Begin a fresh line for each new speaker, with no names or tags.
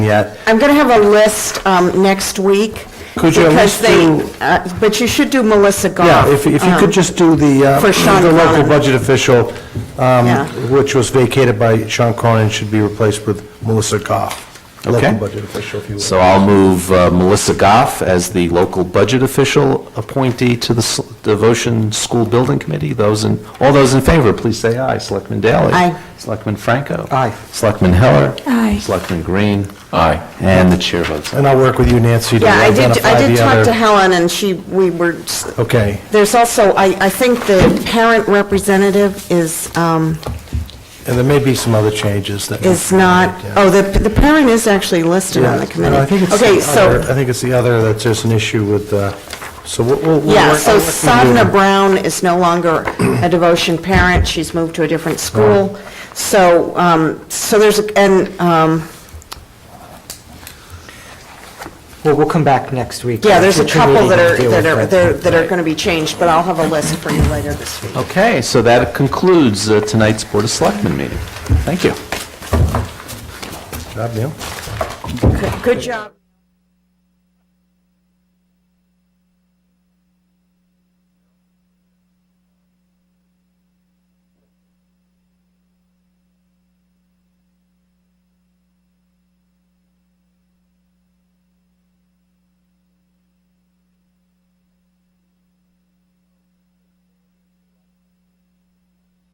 yet.
I'm going to have a list um, next week.
Could you at least
because they-
do-
uh, But you should do Melissa Goff.
Yeah, if, if you could
um,
just do the, uh,
For Sean
the local
Cronin.
budget official, um,
Yeah.
which was vacated by Sean Cronin, should be replaced with Melissa Goff, local
Okay.
budget official, if you will.
So I'll move uh, Melissa Goff as the local budget official appointee to the S- Devotion School Building Committee. Those in, all those in favor, please say aye. Selectman Daley?
Aye.
Selectman Franco?
Aye.
Selectman Heller?
Aye.
Selectman Green? Aye. And the chair votes aye.
And I'll work with you, Nancy, to
Um, Yeah, I
identify the
did,
other...
I did talk to Helen, and she, we were, s-
Okay,
there's also, I, I think the parent representative is, um,
and there may be some other changes that...
is not,
Yeah.
oh, the, the parent is actually listed
Yeah,
on the committee.
I think it's
Okay,
the
so-
other, uh, I think it's the other that's just an issue with, uh, so we'll- we'll... we'll
Yeah,
work-
so
I'll work with you.
Sadna Brown is no longer a devotion parent, she's moved to a different school. So, um, so there's, and, um,
Well, we'll come back next week.
yeah, there's a
Future
couple
meeting
that are,
and deal with
that are, they're- that are going to be changed, but I'll have a list for you later this week.
Okay, so that concludes uh, tonight's Board of Selectmen meeting. Thank you.
Good job, Neil.
Good job.